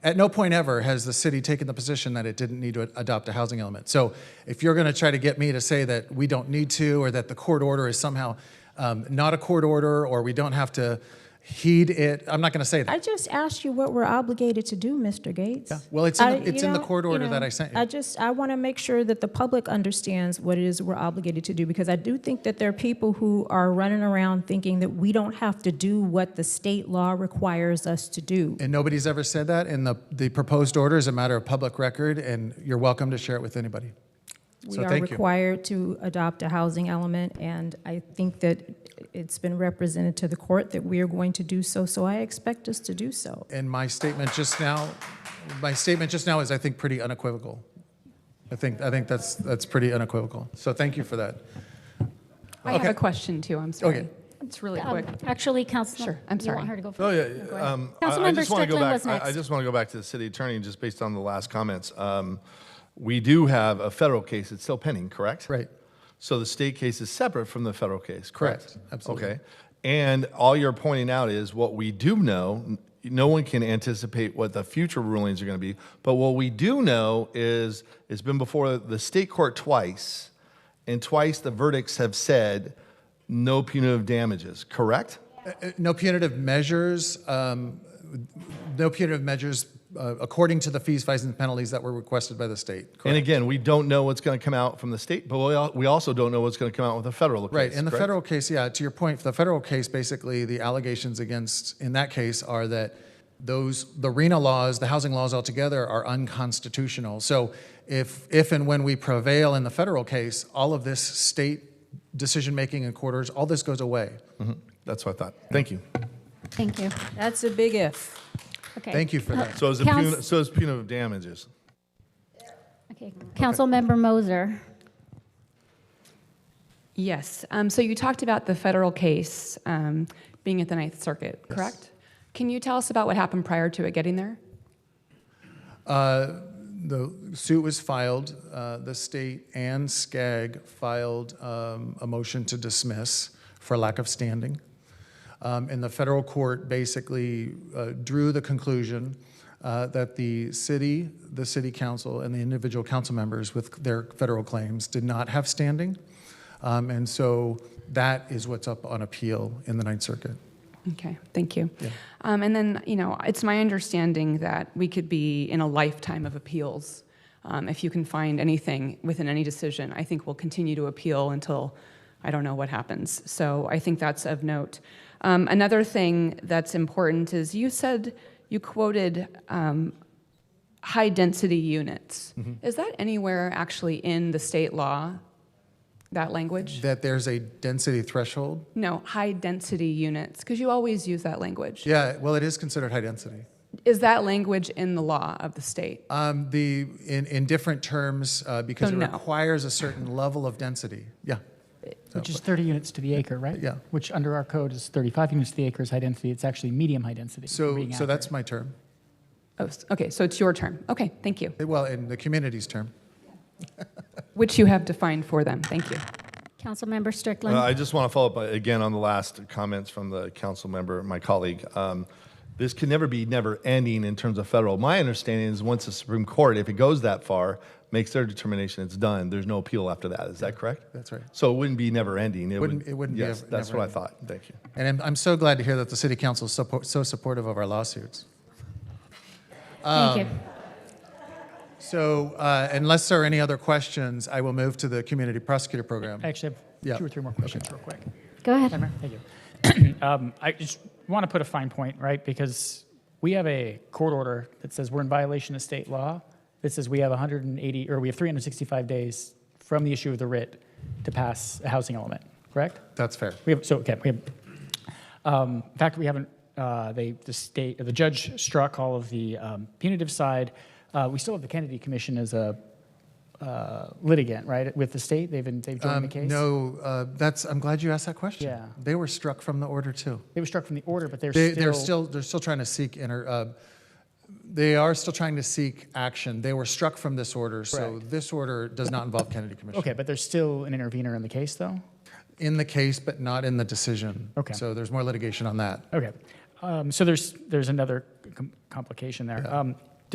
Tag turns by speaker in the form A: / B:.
A: At no point ever has the city taken the position that it didn't need to adopt a housing element. So if you're going to try to get me to say that we don't need to, or that the court order is somehow um, not a court order, or we don't have to heed it, I'm not going to say
B: I
A: that.
B: just asked you what we're obligated to do, Mr. Gates.
A: Well, it's in the-
B: I-
A: it's
B: you
A: in the
B: know-
A: court
B: you
A: order that
B: know,
A: I sent you.
B: I just, I want to make sure that the public understands what it is we're obligated to do, because I do think that there are people who are running around thinking that we don't have to do what the state law requires us to do.
A: And nobody's ever said that, and the, the proposed order is a matter of public record, and you're welcome to share it with anybody.
B: We
A: So
B: are
A: thank you.
B: required to adopt a housing element, and I think that it's been represented to the court that we are going to do so, so I expect us to do so.
A: And my statement just now, my statement just now is, I think, pretty unequivocal. I think, I think that's, that's pretty unequivocal. So thank you for that.
C: I have
A: Okay.
C: a question too, I'm
A: Okay.
C: sorry. It's really
D: Um,
C: quick.
D: Actually, Council.
C: Sure, I'm
D: You
C: sorry.
D: want her to go first?
E: Oh, yeah.
D: Go ahead.
E: um, I- I
D: Councilmember
E: just wanna go
D: Strickland
E: back-
D: was
E: I- I
D: next.
E: just want to go back to the city attorney, just based on the last comments. Um, We do have a federal case, it's still pending, correct?
A: Right.
E: So the state case is separate from the federal case, correct?
A: Correct, absolutely.
E: Okay. And all you're pointing out is what we do know, n- no one can anticipate what the future rulings are going to be, but what we do know is, it's been before the state court twice, and twice the verdicts have said, no punitive damages, correct?
A: Uh, No punitive measures, um, no punitive measures uh, according to the fees, fines, and penalties that were requested by the state.
E: And again, we don't know what's going to come out from the state, but we al- we also don't know what's going to come out with the federal case.
A: Right, in the
E: correct?
A: federal case, yeah, to your point, the federal case, basically, the allegations against, in that case, are that those, the RENA laws, the housing laws altogether are unconstitutional. So if, if and when we prevail in the federal case, all of this state decision-making and quarters, all this goes away.
E: That's what I thought. Thank you.
D: Thank you.
B: That's a big if.
D: Okay.
A: Thank you for that.
E: So is the
D: Couns-
E: puni- so is punitive damages. Uh,
D: Okay, Councilmember Moser.
C: Yes, um, so you talked about the federal case um, being at the Ninth Circuit, correct? Can you tell us about what happened prior to it getting there?
A: Uh, The suit was filed, uh, the state and SCAG filed um, a motion to dismiss for lack of standing. Um, And the federal court basically uh, drew the conclusion uh, that the city, the city council, and the individual council members with their federal claims did not have standing. Um, And so that is what's up on appeal in the Ninth Circuit.
C: Okay, thank you. Um, and then, you know, it's my understanding that we could be in a lifetime of appeals. Um, if you can find anything within any decision, I think we'll continue to appeal until I don't know what happens. So I think that's of note. Um, another thing that's important is you said, you quoted um, high density units. Is that anywhere actually in the state law, that language?
A: That there's a density threshold?
C: no, high density units, because you always use that language.
A: Yeah, well, it is considered high density.
C: Is that language in the law of the state?
A: Um, the, in, in different terms, uh, because
C: So
A: it
C: no.
A: requires a certain level of density. Yeah,
F: Which is 30 units to the acre, right?
A: Yeah.
F: Which under our code is 35 units to the acre is high density. It's actually medium high density. if we're
A: so,
F: being
A: so that's
F: accurate.
A: my term.
C: Oh, s- okay, so it's your term. Okay, thank you.
A: Well, in the community's term.
C: Which you have defined for them. Thank you.
D: Councilmember
E: Uh,
D: Strickland.
E: I just want to follow up uh, again on the last comments from the council member, my colleague. Um, This can never be never ending in terms of federal. My understanding is once the Supreme Court, if it goes that far, makes their determination, it's done. There's no appeal after that. Is that correct?
A: that's right.
E: So it wouldn't be never ending. would-
A: Wouldn't- it wouldn't be
E: Yes,
A: ever-
E: that's
A: never
E: what I
A: ending.
E: thought. Thank you.
A: And I'm, I'm so glad to hear that the city council is suppo- so supportive of our lawsuits.
D: Thank you.
E: Um,
A: So uh, unless there are any other questions, I will move to the community prosecutor program.
F: I actually
A: Yeah.
F: have two or three more questions real quick.
D: Go ahead.
F: Madam Mayor, thank you. Um, I just want to put a fine point, right? Because we have a court order that says we're in violation of state law. That says we have 180, or we have 365 days from the issue of the writ to pass a housing element, correct?
A: That's fair.
F: We have, so, okay, we have, um, in fact, we haven't, uh, they, the state, the judge struck all of the um, punitive side. Uh, we still have the Kennedy Commission as a uh, litigant, right, with the state? They've been, they've joined the
A: Um,
F: case?
A: No, uh, that's, I'm glad you asked that question.
F: Yeah.
A: They were struck from the order too.
F: They were struck from the order, but they're
A: They,
F: still.
A: they're still they're still trying to seek inter. Uh, they are still trying to seek action. They were struck from this order, so
F: Correct.
A: this order does not involve Kennedy Commission
F: Okay, but there's still an intervener in the case, though?
A: in the case, but not in the decision.
F: Okay.
A: So there's more litigation on that.
F: Okay. Um, so there's, there's another com- complication there. Um,